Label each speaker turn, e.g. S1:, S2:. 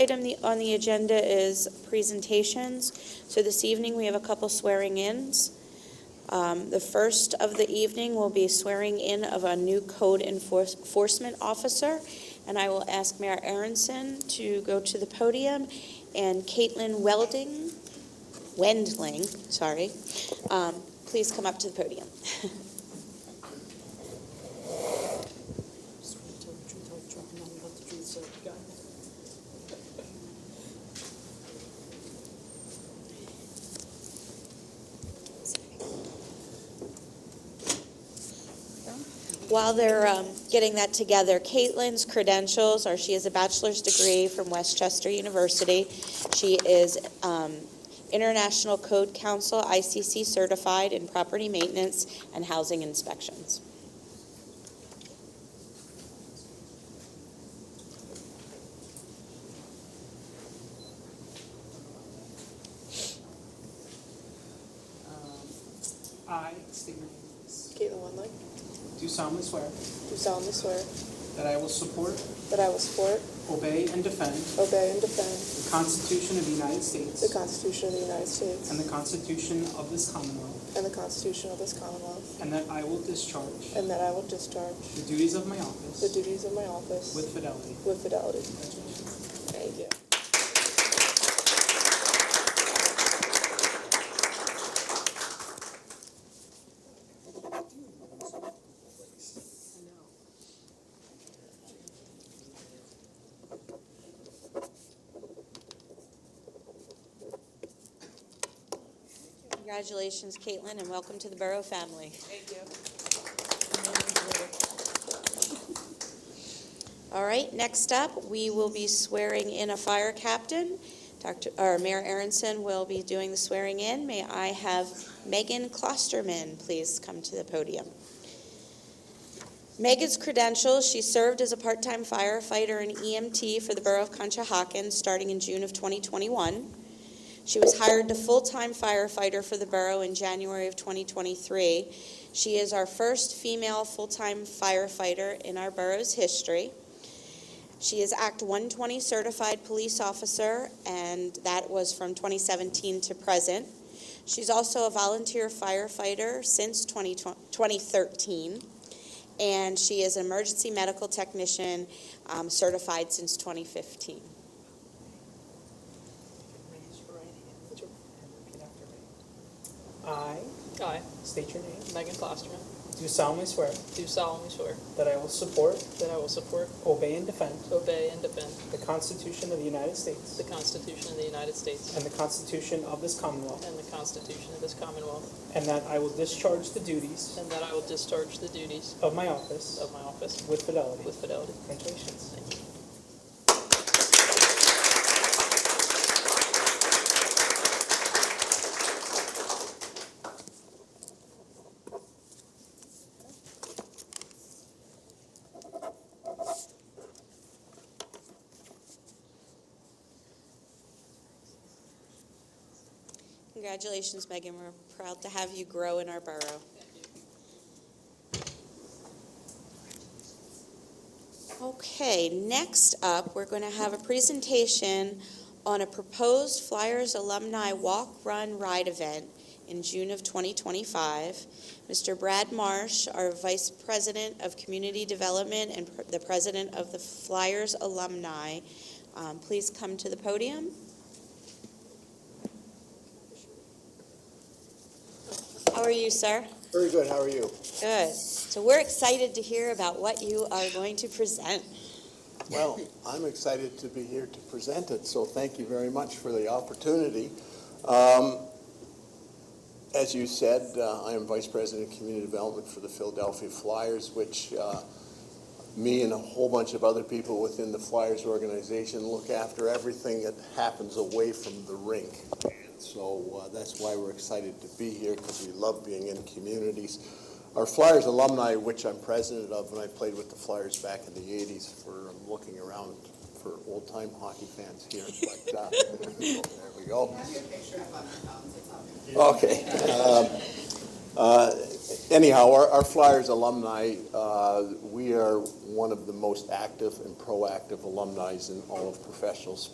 S1: Item the- on the agenda is presentations. So this evening, we have a couple swearing-ins. Um, The first of the evening will be swearing-in of a new code enforce- enforcement officer, and I will ask Mayor Aronson to go to the podium, and Caitlin Welding, Wendling, sorry, um, please come up to the podium.
S2: Swear to tell the truth, whole truth, and nothing but the truth, so help you God.
S1: While they're um, getting that together, Caitlin's credentials are she has a bachelor's degree from Westchester University. She is um, International Code Council ICC certified in property maintenance and housing inspections.
S3: Um, I, state your names,
S4: Caitlin Wendling,
S3: do solemnly swear
S4: do solemnly swear
S3: that I will support,
S4: that I will support,
S3: obey, and defend
S4: obey, and defend
S3: the Constitution of the United
S4: the
S3: States
S4: Constitution of the United States
S3: and the Constitution of this Commonwealth,
S4: and the Constitution of this Commonwealth,
S3: and that I will discharge
S4: and that I will discharge
S3: the duties of my
S4: the
S3: office
S4: duties of my office
S3: with fidelity.
S4: with fidelity.
S3: Congratulations.
S4: Thank you.
S1: Congratulations, Caitlin, and welcome to the Borough family. All right, next up, we will be swearing in a fire captain. Dr., or Mayor Aronson will be doing the swearing in. May I have Megan Klosterman please come to the podium? Megan's credentials, she served as a part-time firefighter and EMT for the Borough of Conshohocken starting in June of 2021. She was hired to full-time firefighter for the borough in January of 2023. She is our first female full-time firefighter in our borough's history. She is Act 120 certified police officer, and that was from 2017 to present. She's also a volunteer firefighter since 20 2013, and she is an emergency medical technician um, certified since 2015.
S2: Raise your right hand. Put your- and repeat after me.
S3: I,
S2: I,
S3: state your name,
S2: Megan Klosterman,
S3: do solemnly swear
S2: do solemnly swear
S3: that I will support,
S2: that I will support,
S3: obey, and defend
S2: obey, and defend
S3: the Constitution of the United States
S2: the Constitution of the United States
S3: and the Constitution of this Commonwealth,
S2: and the Constitution of this Commonwealth,
S3: and that I will discharge the duties
S2: and that I will discharge the duties
S3: of my office
S2: of my office
S3: with fidelity.
S2: with fidelity.
S3: Congratulations.
S2: Thank you.
S1: Congratulations, Megan. We're proud to have you grow in our borough. Okay, next up, we're going to have a presentation on a proposed Flyers Alumni Walk, Run, Ride event in June of 2025. Mr. Brad Marsh, our Vice President of Community Development and pr- the President of the Flyers Alumni, um, please come to the podium. How are you, sir?
S5: Very good, how are you?
S1: Good. So we're excited to hear about what you are going to present.
S5: Well, I'm excited to be here to present it, so thank you very much for the opportunity. Um, As you said, uh, I am Vice President of Community Development for the Philadelphia Flyers, which uh, me and a whole bunch of other people within the Flyers organization look after everything that happens away from the rink. And So uh, that's why we're excited to be here, because we love being in communities. Our Flyers alumni, which I'm president of, and I played with the Flyers back in the 80s, for, I'm looking around for old-time hockey fans here, but, uh, there we go. Okay. Um, uh, Anyhow, our our Flyers alumni, uh, we are one of the most active and proactive alumni in all of professional sports.